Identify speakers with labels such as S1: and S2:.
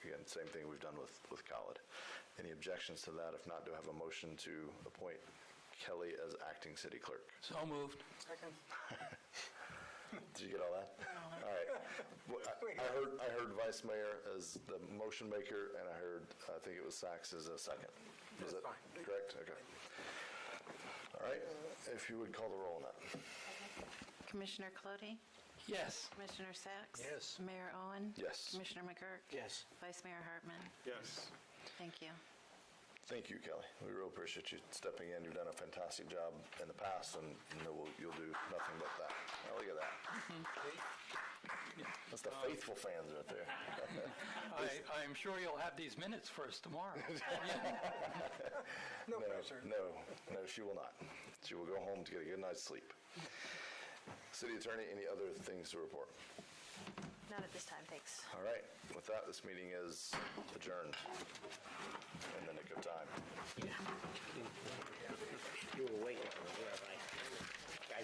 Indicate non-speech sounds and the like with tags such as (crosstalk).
S1: same thing we've done with, with Khalid. Any objections to that? If not, do I have a motion to appoint Kelly as acting city clerk?
S2: So moved.
S3: Second.
S1: Did you get all that? All right.
S3: (laughs)
S1: Well, I- I heard, I heard Vice Mayor as the motion maker, and I heard, I think it was Sachs as a second. Was it
S3: That's fine.
S1: correct? Okay. All right, if you would call the roll on that.
S4: Commissioner Clody?
S2: Yes.
S4: Commissioner Sacks?
S3: Yes.
S4: Mayor Owen?
S1: Yes.
S4: Commissioner McGurk?
S3: Yes.
S4: Vice Mayor Hartman?
S5: Yes.
S4: Thank you.
S1: Thank you, Kelly. We really appreciate you stepping in. You've done a fantastic job in the past, and you know, we'll- you'll do nothing but that. Now, look at that. That's the faithful fans right there.
S2: I, I'm sure you'll have these minutes for us tomorrow.
S1: No,
S3: No pressure.
S1: No, no, she will not. She will go home to get a good night's sleep. City Attorney, any other things to report?
S4: Not at this time, thanks.
S1: All right, with that, this meeting is adjourned in the nick of time.